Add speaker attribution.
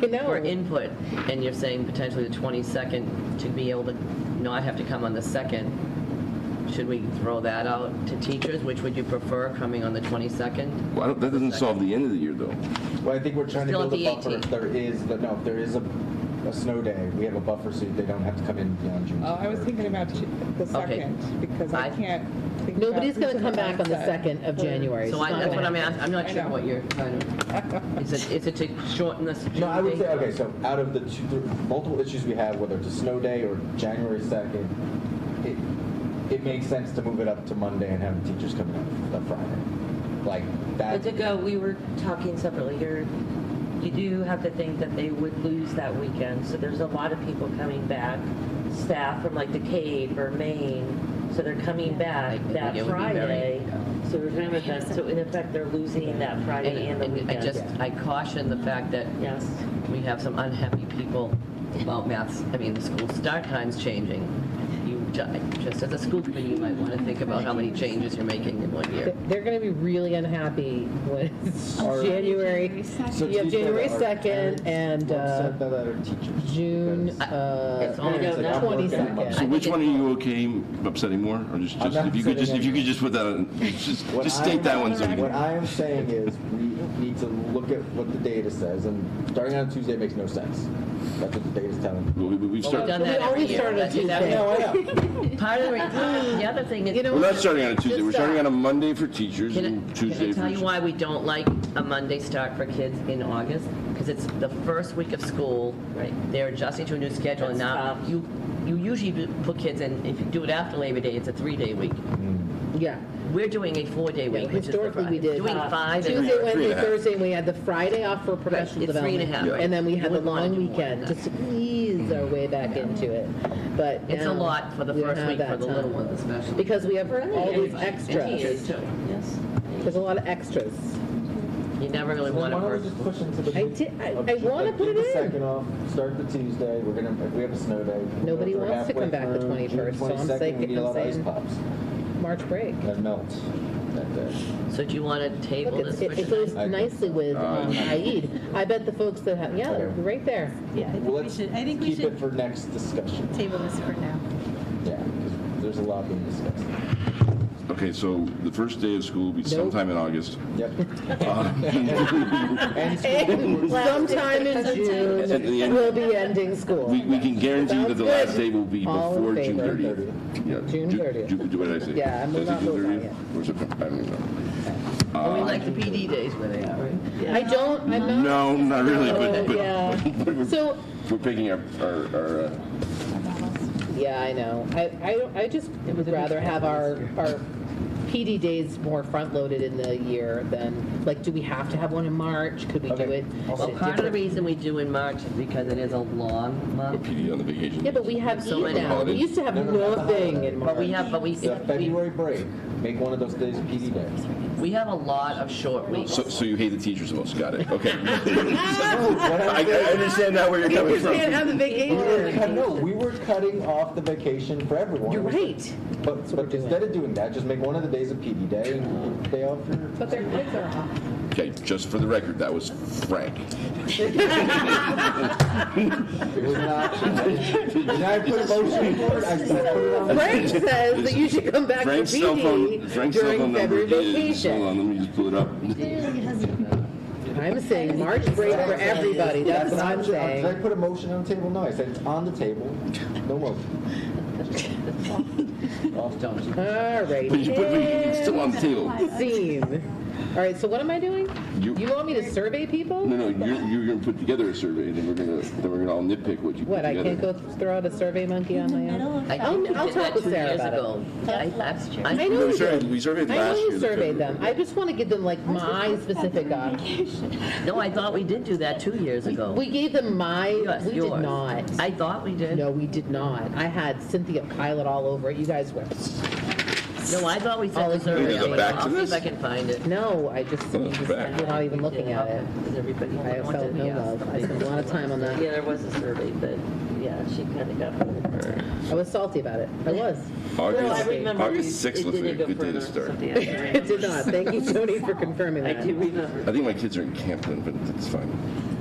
Speaker 1: No.
Speaker 2: for input, and you're saying potentially the 22nd to be able to not have to come on the 2nd, should we throw that out to teachers? Which would you prefer, coming on the 22nd?
Speaker 3: Well, I don't- that doesn't solve the end of the year, though.
Speaker 4: Well, I think we're trying to
Speaker 2: Still
Speaker 4: build a
Speaker 2: at the
Speaker 4: buffer. If
Speaker 2: 18.
Speaker 4: there is, but no, if there is a, a snow day, we have a buffer so they don't have to come in beyond June.
Speaker 5: Oh, I was
Speaker 4: 23rd.
Speaker 5: thinking about ju- the
Speaker 2: Okay.
Speaker 5: second, because
Speaker 2: I-
Speaker 5: I can't think about
Speaker 1: Nobody's going to
Speaker 5: who's
Speaker 1: come
Speaker 5: gonna
Speaker 1: back on the
Speaker 5: answer.
Speaker 1: 2nd of January.
Speaker 2: So
Speaker 1: It's
Speaker 2: I-
Speaker 1: not
Speaker 2: that's
Speaker 1: gonna
Speaker 2: what I'm
Speaker 1: happen.
Speaker 2: asking, I'm not
Speaker 5: I
Speaker 2: sure
Speaker 5: know.
Speaker 2: what you're trying to, is it, is it to shorten this?
Speaker 4: No, I would say, okay, so out of the two, the multiple issues we have, whether it's a snow day or January 2nd, it, it makes sense to move it up to Monday and have the teachers come in the Friday. Like,
Speaker 6: But to
Speaker 4: that,
Speaker 6: go, we were talking separately, you're, you do have to think that they would lose that weekend, so there's a lot of people coming back, staff from like the Cape or Maine, so they're coming back
Speaker 2: Like,
Speaker 6: that
Speaker 2: it would be very-
Speaker 6: Friday. So we're talking about that, so in effect, they're losing that Friday and
Speaker 2: And
Speaker 6: the
Speaker 2: and I just,
Speaker 6: weekend.
Speaker 2: I caution the fact that
Speaker 6: Yes,
Speaker 2: we have some unhappy people about maths, I mean, the school start times changing. You, ju- just as a school committee, you might want to think about how many changes you're making in one year.
Speaker 1: They're going to be really unhappy when it's
Speaker 4: Our-
Speaker 1: January,
Speaker 4: So
Speaker 1: you have
Speaker 4: teachers
Speaker 1: January
Speaker 4: are
Speaker 1: 2nd
Speaker 4: parents,
Speaker 1: and
Speaker 4: upset
Speaker 1: uh,
Speaker 4: that are teachers.
Speaker 1: June
Speaker 4: because-
Speaker 1: uh,
Speaker 2: It's only
Speaker 4: Parents
Speaker 2: go
Speaker 4: like, I'm
Speaker 2: down.
Speaker 4: working on Monday.
Speaker 1: 22nd.
Speaker 3: So
Speaker 2: think
Speaker 3: which
Speaker 2: it-
Speaker 3: one are you okay upsetting more, or just,
Speaker 4: I'm
Speaker 3: just
Speaker 4: not
Speaker 3: if you could just, if you could
Speaker 4: upsetting
Speaker 3: just put that, on- just,
Speaker 4: What
Speaker 3: just
Speaker 4: I-
Speaker 3: state that one so we
Speaker 4: What
Speaker 3: can.
Speaker 4: I am saying is, we need to look at what the data says, and starting on Tuesday makes no sense. That's what the data's telling. me.
Speaker 3: We, we- we've
Speaker 2: We've
Speaker 3: started,
Speaker 2: done that
Speaker 1: We
Speaker 2: every
Speaker 1: always
Speaker 2: year.
Speaker 1: start on
Speaker 2: That's- that-
Speaker 1: Tuesday.
Speaker 4: No, I know.
Speaker 2: Part of the, reason- the other thing is,
Speaker 1: You know-
Speaker 3: we're not starting on a Tuesday,
Speaker 1: Just,
Speaker 3: we're starting
Speaker 1: uh,
Speaker 3: on a Monday for teachers
Speaker 2: Can I-
Speaker 3: and Tuesday
Speaker 2: Can I
Speaker 3: for.
Speaker 2: tell you why we don't like a Monday start for kids in August? Because it's the first week of school.
Speaker 6: Right.
Speaker 2: They're adjusting to a new schedule, and
Speaker 6: That's
Speaker 2: now
Speaker 6: tough.
Speaker 2: you, you usually do- put kids in, if you do it after Labor Day, it's a three-day week.
Speaker 1: yeah.
Speaker 2: We're doing a four-day week, which is the
Speaker 1: historically, we
Speaker 2: Friday.
Speaker 1: did. uh,
Speaker 2: Doing five. and-
Speaker 1: Tuesday,
Speaker 3: Three
Speaker 1: Wednesday,
Speaker 3: and a half.
Speaker 1: Thursday, and we had the Friday off for professional
Speaker 2: Right, it's three and a
Speaker 1: development.
Speaker 2: half, right.
Speaker 1: And then we
Speaker 2: You
Speaker 1: had the
Speaker 2: wouldn't wanna
Speaker 1: long
Speaker 2: do more
Speaker 1: weekend to
Speaker 2: than that.
Speaker 1: squeeze our way back into it. But
Speaker 2: It's a
Speaker 1: now
Speaker 2: lot for the
Speaker 1: we don't
Speaker 2: first
Speaker 1: have
Speaker 2: week for
Speaker 1: that
Speaker 2: the little
Speaker 1: time.
Speaker 2: ones especially.
Speaker 1: Because we have all these
Speaker 2: Kids
Speaker 1: extras.
Speaker 2: too.
Speaker 6: yes.
Speaker 1: There's a lot of extras.
Speaker 2: You never really
Speaker 4: Why
Speaker 2: want to
Speaker 4: don't we
Speaker 2: burst.
Speaker 4: just push into the?
Speaker 1: I did- I-
Speaker 4: of
Speaker 1: I
Speaker 4: Ju-
Speaker 1: wanna
Speaker 4: like,
Speaker 1: put
Speaker 4: give
Speaker 1: it
Speaker 4: the
Speaker 1: in.
Speaker 4: Second off, start the Tuesday, we're gonna, if we have a snow day. we'll go
Speaker 1: Nobody
Speaker 4: through
Speaker 1: wants to come
Speaker 4: halfway
Speaker 1: back the
Speaker 4: through.
Speaker 1: 21st, so I'm
Speaker 4: June 22nd,
Speaker 1: saying-
Speaker 4: We need a lot of
Speaker 1: I'm
Speaker 4: ice
Speaker 1: saying-
Speaker 4: pops
Speaker 1: March break.
Speaker 4: that melt that day.
Speaker 2: So do you want to
Speaker 1: Look,
Speaker 2: table
Speaker 1: it's-
Speaker 2: this?
Speaker 1: it it
Speaker 2: for
Speaker 1: goes
Speaker 4: I-
Speaker 1: nicely with um, Aid. I bet the folks that have, yeah, they're
Speaker 4: Okay.
Speaker 1: right there.
Speaker 7: Yeah, I think
Speaker 4: Well,
Speaker 7: we
Speaker 4: let's
Speaker 7: should, I think we
Speaker 4: Keep it
Speaker 7: should
Speaker 4: for next discussion.
Speaker 7: table this for now.
Speaker 4: Yeah, because there's a lot being discussed.
Speaker 3: Okay, so the first day of school will be sometime in August. Uh,
Speaker 4: Yep.
Speaker 1: Sometime in June,
Speaker 3: At the end-
Speaker 1: we'll be ending school.
Speaker 3: We, we can guarantee that the
Speaker 1: Sounds
Speaker 3: last
Speaker 1: good.
Speaker 3: day will be
Speaker 1: All in
Speaker 3: before June
Speaker 1: favor?
Speaker 3: thirtieth. Yeah,
Speaker 1: June
Speaker 3: Ju-
Speaker 1: 30th.
Speaker 3: Ju- Ju- what did I say?
Speaker 1: Yeah, I'm
Speaker 3: Did I
Speaker 1: not
Speaker 3: say June
Speaker 1: voting
Speaker 3: 30th? Or September, I don't know.
Speaker 2: And we like the PD days where they are, right?
Speaker 1: I don't, I'm not.
Speaker 3: No, not really,
Speaker 1: Oh,
Speaker 3: but,
Speaker 1: yeah.
Speaker 3: but- but we're-
Speaker 1: So,
Speaker 3: we're picking up our, our, uh,
Speaker 1: yeah, I know. I, I, don't- I just would rather have our, our PD days more front-loaded in the year than, like, do we have to have one in March? Could we do
Speaker 4: Okay.
Speaker 1: it?
Speaker 2: Well, part of the reason we do in March is because it is a long
Speaker 3: our
Speaker 2: month.
Speaker 3: PD on the vacation.
Speaker 1: Yeah, but we have
Speaker 2: So
Speaker 1: Eid
Speaker 2: many
Speaker 1: now. We
Speaker 3: holidays.
Speaker 1: used to have
Speaker 4: No, no, no,
Speaker 1: nothing in
Speaker 2: But
Speaker 1: March.
Speaker 2: we have, but we,
Speaker 4: The February break, make one of those days PD day.
Speaker 2: we have a lot of short weeks.
Speaker 3: So, so you hate the teachers the most, got it, okay. I I understand now where you're coming
Speaker 1: Because we
Speaker 3: from.
Speaker 1: didn't have the vacation.
Speaker 4: No, we were cutting off the vacation for everyone.
Speaker 1: You're right.
Speaker 4: But, but instead of doing that, just make one of the days a PD day and day off for.
Speaker 5: But their kids are off.
Speaker 3: Okay, just for the record, that was Frank.
Speaker 4: It was not. Did I put a motion for it? I still put it on.
Speaker 1: Frank says that you should come back to
Speaker 3: Frank's cell phone,
Speaker 1: PD
Speaker 3: Frank's cell phone
Speaker 1: during
Speaker 3: number
Speaker 1: February
Speaker 3: is, hold
Speaker 1: vacation.
Speaker 3: on, let me just pull it up.
Speaker 1: I'm saying March break for everybody, that's what I'm
Speaker 4: option. Did I
Speaker 1: saying.
Speaker 4: put a motion on the table? No, I said it's on the table. No motion. Off topic.
Speaker 1: All right.
Speaker 3: But you put, but it's still on the table.
Speaker 1: Scene. All right, so what am I doing?
Speaker 3: You-
Speaker 1: You want me to survey people?
Speaker 3: No, no, you're, you're gonna put together a survey, and then we're gonna, then we're gonna all nitpick what you put
Speaker 1: What, I
Speaker 3: together.
Speaker 1: can't go throw out a survey monkey on my own?
Speaker 2: I
Speaker 1: I'll-
Speaker 2: think we
Speaker 1: I'll
Speaker 2: did
Speaker 1: talk
Speaker 2: that
Speaker 1: with
Speaker 2: two
Speaker 1: Sarah
Speaker 2: years
Speaker 1: about it.
Speaker 2: ago. Yeah, I- I- I-
Speaker 1: I know
Speaker 3: No, we
Speaker 1: you
Speaker 3: surveyed,
Speaker 1: did.
Speaker 3: we surveyed
Speaker 1: I
Speaker 3: last
Speaker 1: know
Speaker 3: year.
Speaker 1: you
Speaker 3: the
Speaker 1: surveyed
Speaker 3: February.
Speaker 1: them. I just want to give them like my specific op.
Speaker 2: No, I thought we did do that two years ago.
Speaker 1: We gave them my,
Speaker 2: Yes,
Speaker 1: we did
Speaker 2: yours.
Speaker 1: not.
Speaker 2: I thought we did.
Speaker 1: No, we did not. I had Cynthia Pilot all over it. You guys were,
Speaker 2: No, I thought we
Speaker 1: All
Speaker 2: said the
Speaker 1: of
Speaker 2: survey.
Speaker 3: you. We go back to
Speaker 2: I'll see if I
Speaker 3: this?
Speaker 2: can find it.
Speaker 1: no, I just,
Speaker 3: Oh,
Speaker 1: you just-
Speaker 3: back.
Speaker 1: you're not even looking at it.
Speaker 6: Does everybody
Speaker 1: I have
Speaker 6: want
Speaker 1: felt
Speaker 6: to-
Speaker 1: no
Speaker 6: yes.
Speaker 1: love. I spent a lot of time on
Speaker 6: Yeah,
Speaker 1: that.
Speaker 6: there was a survey, but, yeah, she kind of got.
Speaker 1: I was salty about it. I was.
Speaker 6: Well, I
Speaker 3: August,
Speaker 6: remember
Speaker 3: August
Speaker 6: it- it
Speaker 3: sixth was a
Speaker 6: didn't go
Speaker 3: good day
Speaker 6: further,
Speaker 3: to start.
Speaker 6: something I do
Speaker 1: It did not. Thank you, Tony, for confirming
Speaker 6: I
Speaker 1: that.
Speaker 6: do remember.
Speaker 3: I think my kids are in Camden, but that's fine.